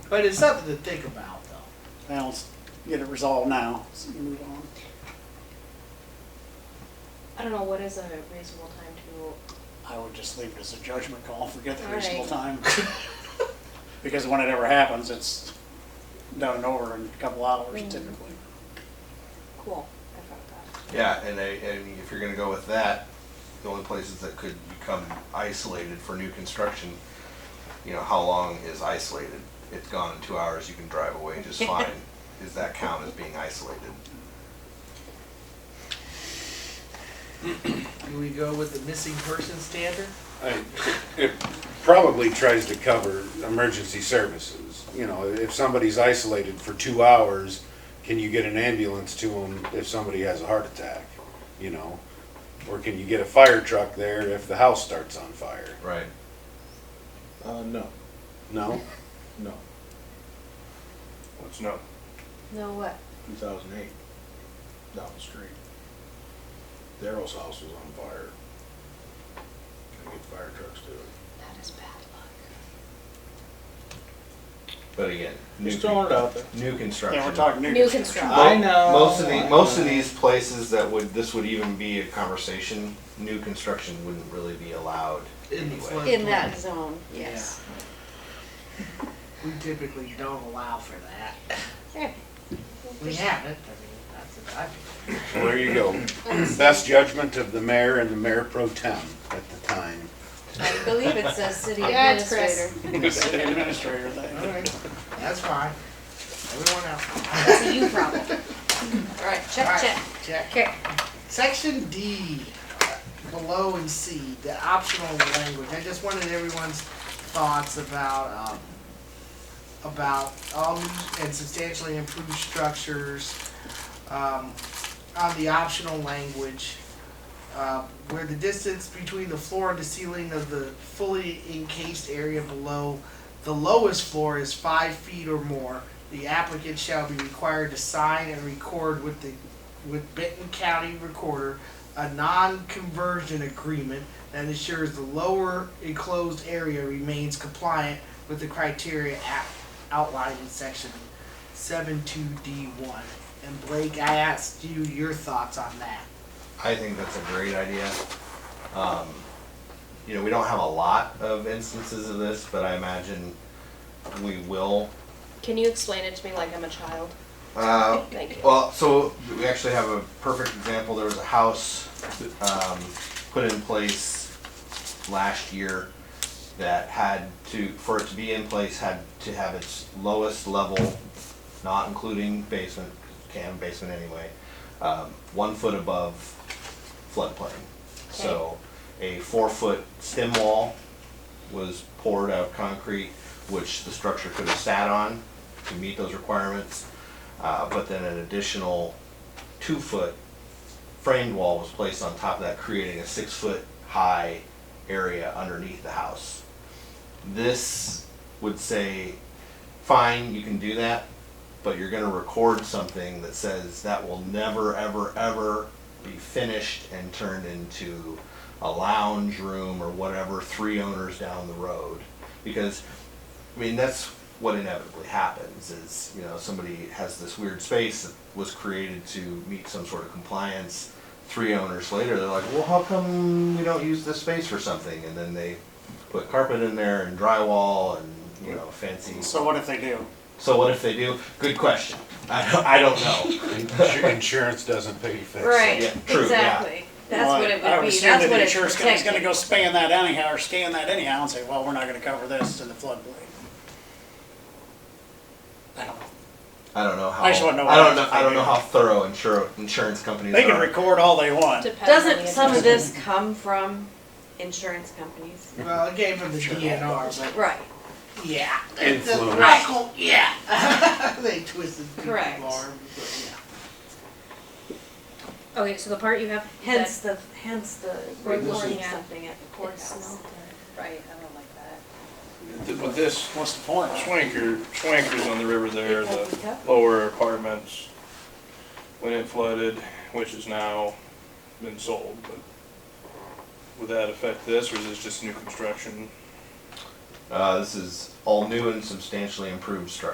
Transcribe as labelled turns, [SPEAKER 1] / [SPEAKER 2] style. [SPEAKER 1] But it's something to think about, though.
[SPEAKER 2] Now, let's get it resolved now, so we can move on.
[SPEAKER 3] I don't know, what is a reasonable time
[SPEAKER 2] I would just leave it as a judgment call, forget the
[SPEAKER 3] All
[SPEAKER 2] reasonable
[SPEAKER 3] right.
[SPEAKER 2] time. Because when it ever happens, it's done and over in a couple hours
[SPEAKER 3] Mhm.
[SPEAKER 2] typically.
[SPEAKER 3] to, cool, I thought
[SPEAKER 4] Yeah, and I, I mean, if you're gonna go with that, the only places that could become isolated for new construction, you know, how long is isolated? It's gone in two hours, you can drive away just fine. Does that count as being isolated?
[SPEAKER 1] Do we go with the missing person standard?
[SPEAKER 5] I- It probably tries to cover emergency services. You know, if somebody's isolated for two hours, can you get an ambulance to them if somebody has a heart attack? You know, or can you get a fire truck there if the house starts on fire?
[SPEAKER 4] Right.
[SPEAKER 6] Uh, no,
[SPEAKER 5] No?
[SPEAKER 6] no,
[SPEAKER 4] What's no?
[SPEAKER 3] that. No, what?
[SPEAKER 6] two thousand eight, down the street. Daryl's house was on fire. Gotta get fire trucks to it.
[SPEAKER 3] That is bad luck.
[SPEAKER 4] But again, new,
[SPEAKER 6] Just throwing it out there.
[SPEAKER 4] new construction.
[SPEAKER 2] Yeah, we're talking new
[SPEAKER 3] New
[SPEAKER 2] construction.
[SPEAKER 3] construction.
[SPEAKER 6] I know.
[SPEAKER 4] Most of the,
[SPEAKER 6] I
[SPEAKER 4] most of
[SPEAKER 6] know.
[SPEAKER 4] these places that would, this would even be a conversation, new construction wouldn't really be allowed
[SPEAKER 1] In the flood-
[SPEAKER 4] anyway.
[SPEAKER 3] In that zone, yes.
[SPEAKER 1] We typically don't allow for that.
[SPEAKER 3] There.
[SPEAKER 1] We haven't, I mean, that's what I
[SPEAKER 5] Well, there you go. Best judgment of the mayor and the mayor pro tem at the time.
[SPEAKER 3] I believe it says city
[SPEAKER 7] Yeah, it's Chris.
[SPEAKER 3] administrator.
[SPEAKER 2] City administrator thing.
[SPEAKER 1] All right, that's fine. Everyone else,
[SPEAKER 3] That's a you problem. All right,
[SPEAKER 1] All
[SPEAKER 3] check,
[SPEAKER 1] right.
[SPEAKER 3] check.
[SPEAKER 1] check.
[SPEAKER 3] Okay.
[SPEAKER 1] Section D, below and C, the optional language, I just wanted everyone's thoughts about, um, about all new and substantially improved structures, um, on the optional language, uh, where the distance between the floor and the ceiling of the fully encased area below the lowest floor is five feet or more, the applicant shall be required to sign and record with the with Benton County Recorder a non-conversion agreement that ensures the lower enclosed area remains compliant with the criteria at- outlined in section 72D1. And Blake, I asked you your thoughts on that.
[SPEAKER 4] I think that's a great idea. Um, you know, we don't have a lot of instances of this, but I imagine we will.
[SPEAKER 3] Can you explain it to me like I'm a child?
[SPEAKER 4] Uh,
[SPEAKER 3] Thank you.
[SPEAKER 4] well, so we actually have a perfect example. There was a house um, put in place last year that had to, for it to be in place, had to have its lowest level, not including basement, can basement anyway, um, one foot above floodplain. So a four-foot stem wall was poured out of concrete, which the structure could have sat on to meet those requirements. Uh, but then an additional two-foot framed wall was placed on top of that, creating a six-foot-high area underneath the house. This would say, fine, you can do that, but you're gonna record something that says that will never, ever, ever be finished and turned into a lounge room or whatever, three owners down the road. Because I mean, that's what inevitably happens is, you know, somebody has this weird space that was created to meet some sort of compliance. Three owners later, they're like, well, how come we don't use this space for something? And then they put carpet in there and drywall and, you know, fancy.
[SPEAKER 2] So what if they do?
[SPEAKER 4] So what if they do? Good question. I don't, I don't know.
[SPEAKER 5] Insur- Insurance doesn't pay to fix it.
[SPEAKER 3] Right,
[SPEAKER 4] Yeah, true, yeah.
[SPEAKER 3] exactly. That's
[SPEAKER 2] Well,
[SPEAKER 3] what it would be.
[SPEAKER 2] I would assume
[SPEAKER 3] That's
[SPEAKER 2] that
[SPEAKER 3] what
[SPEAKER 2] the
[SPEAKER 3] it's
[SPEAKER 2] insurance company's gonna
[SPEAKER 3] protecting.
[SPEAKER 2] go span that anyhow, or scan that anyhow, and say, well, we're not gonna cover this in the floodplain. I don't know.
[SPEAKER 4] I don't know how.
[SPEAKER 2] I just wanna know
[SPEAKER 4] I don't
[SPEAKER 2] what
[SPEAKER 4] know.
[SPEAKER 2] else
[SPEAKER 4] I don't
[SPEAKER 2] they
[SPEAKER 4] know
[SPEAKER 2] do.
[SPEAKER 4] how thorough insur- insurance companies
[SPEAKER 2] They can
[SPEAKER 4] are.
[SPEAKER 2] record all they want.
[SPEAKER 3] Depends on
[SPEAKER 7] Doesn't
[SPEAKER 3] the
[SPEAKER 7] some of
[SPEAKER 3] individual.
[SPEAKER 7] this come from insurance companies?
[SPEAKER 1] Well, it came from the DNR,
[SPEAKER 7] Right.
[SPEAKER 1] but yeah.
[SPEAKER 5] Influence.
[SPEAKER 1] Right, cool, yeah. They twisted people's
[SPEAKER 7] Correct.
[SPEAKER 1] arms, but yeah.
[SPEAKER 3] Okay, so the part you have.
[SPEAKER 7] Hence the, hence the recording
[SPEAKER 3] Yeah.
[SPEAKER 7] something at the courthouse.
[SPEAKER 3] Right, I don't like that.
[SPEAKER 8] With this
[SPEAKER 2] What's the point?
[SPEAKER 8] swanker, swankers on the river there, the
[SPEAKER 7] Yep.
[SPEAKER 8] lower apartments, when it flooded, which has now been sold, but would that affect this, or is this just new construction?
[SPEAKER 4] Uh, this is all new and substantially improved structures.